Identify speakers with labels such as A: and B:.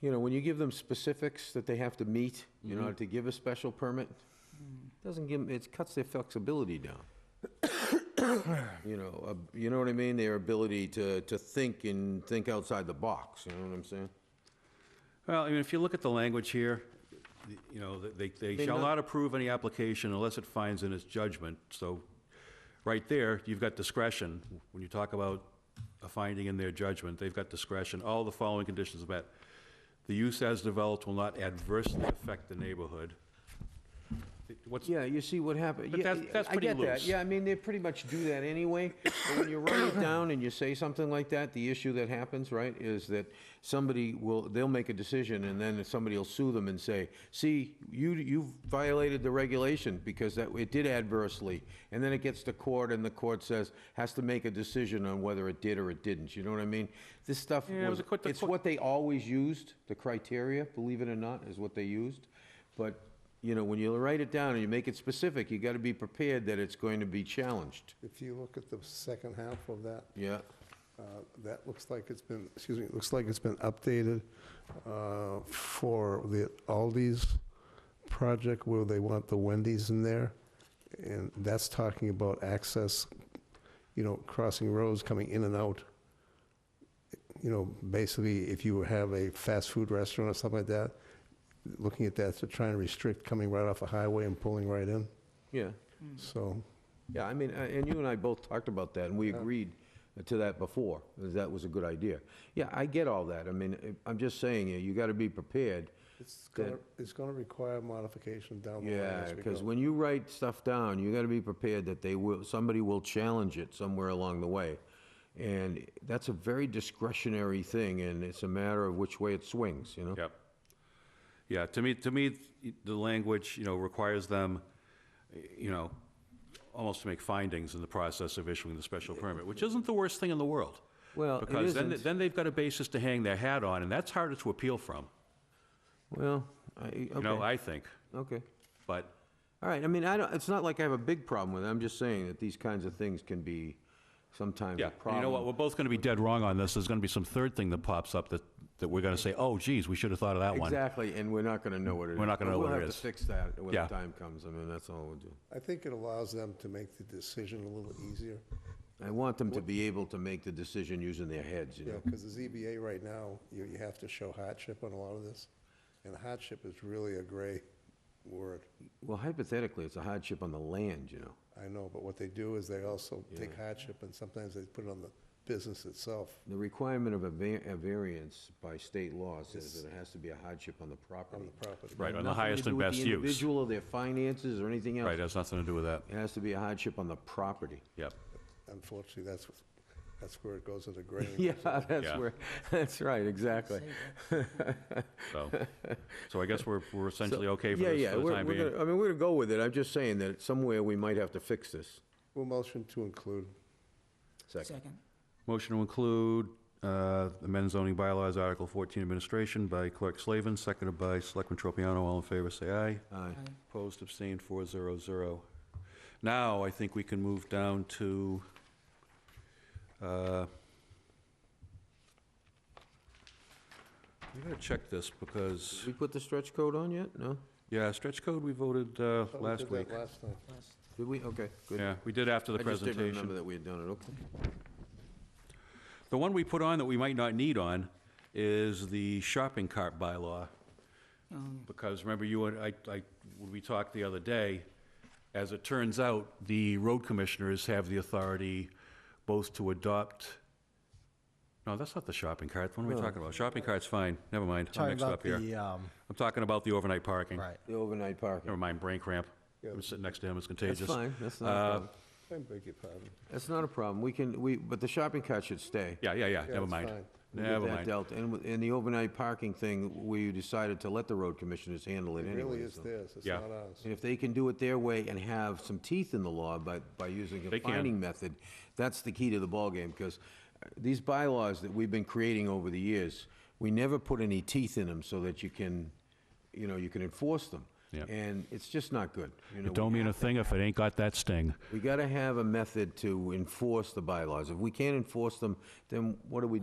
A: you know, when you give them specifics that they have to meet in order to give a special permit, doesn't give, 'em- it cuts their flexibility down. You know, uh, you know what I mean? Their ability to, to think and think outside the box, you know what I'm saying?
B: Well, I mean, if you look at the language here, the- you know, they, they
A: They
B: shall
A: not-
B: not approve any application unless it finds in its judgment, so, right there, you've got discretion. When you talk about a finding in their judgment, they've got discretion, all the following conditions are met. The use as developed will not adversely affect the neighborhood. What's,
A: Yeah, you see what happened.
B: But
A: yeah,
B: that's- that's
A: I
B: pretty
A: get that.
B: loose.
A: Yeah, I mean, they pretty much do that anyway. But when you write it down and you say something like that, the issue that happens, right, is that somebody will, they'll make a decision and then somebody will sue them and say, see, you, you violated the regulation because that, it did adversely. And then it gets to court and the court says, has to make a decision on whether it did or it didn't. You know what I mean? This stuff
B: Yeah, it was
A: was,
B: a quick- the
A: it's
B: quick-
A: what they always used, the criteria, believe it or not, is what they used. But, you know, when you write it down and you make it specific, you gotta be prepared that it's going to be challenged.
C: If you look at the second half of that,
A: Yeah,
C: uh, that looks like it's been, excuse me, it looks like it's been updated uh, for the Aldi's project where they want the Wendy's in there. And that's talking about access, you know, crossing roads, coming in and out. You know, basically, if you have a fast food restaurant or something like that, looking at that to try and restrict coming right off the highway and pulling right in.
A: yeah,
C: So
A: yeah, I mean, uh, and you and I both talked about that, and we agreed to that before, that that was a good idea. Yeah, I get all that, I mean, I- I'm just saying, uh, you gotta be prepared.
C: It's gonna, it's gonna require modification down the line
A: Yeah,
C: as we
A: because
C: go.
A: when you write stuff down, you gotta be prepared that they will, somebody will challenge it somewhere along the way. And that's a very discretionary thing, and it's a matter of which way it swings, you know?
B: Yep. Yeah, to me, to me, the language, you know, requires them, you know, almost to make findings in the process of issuing the special permit, which isn't the worst thing in the world.
A: Well, it
B: Because then,
A: isn't.
B: then they've got a basis to hang their hat on, and that's harder to appeal from,
A: Well, I,
B: you know,
A: okay,
B: I think.
A: okay.
B: But,
A: All right, I mean, I don't, it's not like I have a big problem with it, I'm just saying that these kinds of things can be sometimes
B: yeah,
A: a
B: and
A: problem.
B: you know what, we're both gonna be dead wrong on this, there's gonna be some third thing that pops up that, that we're gonna say, oh geez, we should have thought of that one.
A: Exactly, and we're not gonna know what it is.
B: We're not gonna
A: But
B: know what it
A: We'll have
B: is.
A: to fix that when the
B: Yeah.
A: time comes, I mean, that's all we'll do.
C: I think it allows them to make the decision a little easier,
A: I want them to be able to make the decision using their heads, you
C: you
A: know?
C: know, because the ZBA right now, you, you have to show hardship on a lot of this. And hardship is really a gray word.
A: Well, hypothetically, it's a hardship on the land, you know?
C: I know, but what they do is they also take hardship and sometimes they put it on the business itself.
A: The requirement of a va- a variance by state law says that it has to be a hardship on the property.
C: property.
B: Right, on the
A: Nothing to
B: highest
A: do
B: and
A: with
B: best
A: the
B: use.
A: individual, their finances, or anything
B: Right,
A: else.
B: has nothing to do with that,
A: It has to be a hardship on the property.
B: yep.
C: Unfortunately, that's, what- that's where it goes into gray.
A: Yeah, that's
B: Yeah.
A: where, that's right, exactly.
B: So, so I guess we're, we're essentially okay for
A: Yeah,
B: this
A: yeah,
B: for the
A: we're-
B: time
A: we're
B: being.
A: gonna- I mean, we're gonna go with it, I'm just saying that somewhere we might have to fix this.
C: Well, motion to include.
A: Second.
D: Second.
B: Motion to include uh, amend zoning bylaws, Article 14, administration by Clerk Slavin, seconded by Selectman Tropiano. All in favor, say aye.
A: Aye.
D: Aye.
B: Opposed, abstained, 400. Now, I think we can move down to uh, we gotta check this because,
A: Did we put the stretch code on yet? No?
B: yeah, stretch code, we voted
A: Oh,
B: uh,
C: Thought we
B: last
C: did that
B: week.
C: Last time.
D: Last.
A: Did we? Okay, good.
B: Yeah, we did after the
A: I just didn't
B: presentation.
A: remember that we had done it, okay.
B: The one we put on that we might not need on is the shopping cart bylaw. Because remember you and I, I, when we talked the other day, as it turns out, the road commissioners have the authority both to adopt, no, that's not the shopping cart. What am I talking about? Shopping cart's fine. Never mind. I'm
E: Talking
B: mixed
E: about
B: up here.
E: the, um,
B: I'm talking about the overnight parking.
E: right.
A: The overnight parking.
B: Never mind, brain cramp.
C: Yeah.
B: I'm sitting next to him. It's contagious.
A: That's fine, that's not
B: uh,
A: a problem.
C: I beg your pardon.
A: That's not a problem, we can, we, but the shopping cart should stay.
B: Yeah, yeah, yeah. Never
C: it's
B: mind.
C: fine.
A: We'll get
B: Never
A: that
B: mind.
A: dealt. And, with- and the overnight parking thing, we decided to let the road commissioners handle it
C: It really
A: anyway.
C: is theirs, it's
B: Yeah.
C: not ours.
A: And if they can do it their way and have some teeth in the law by, by using a
B: They can.
A: finding method, that's the key to the ballgame, because these bylaws that we've been creating over the years, we never put any teeth in them so that you can, you know, you can enforce them.
B: Yeah.
A: And it's just not good. You know, we
B: Don't mean a
A: have to-
B: thing if it ain't got that sting.
A: We gotta have a method to enforce the bylaws. If we can't enforce them, then what do we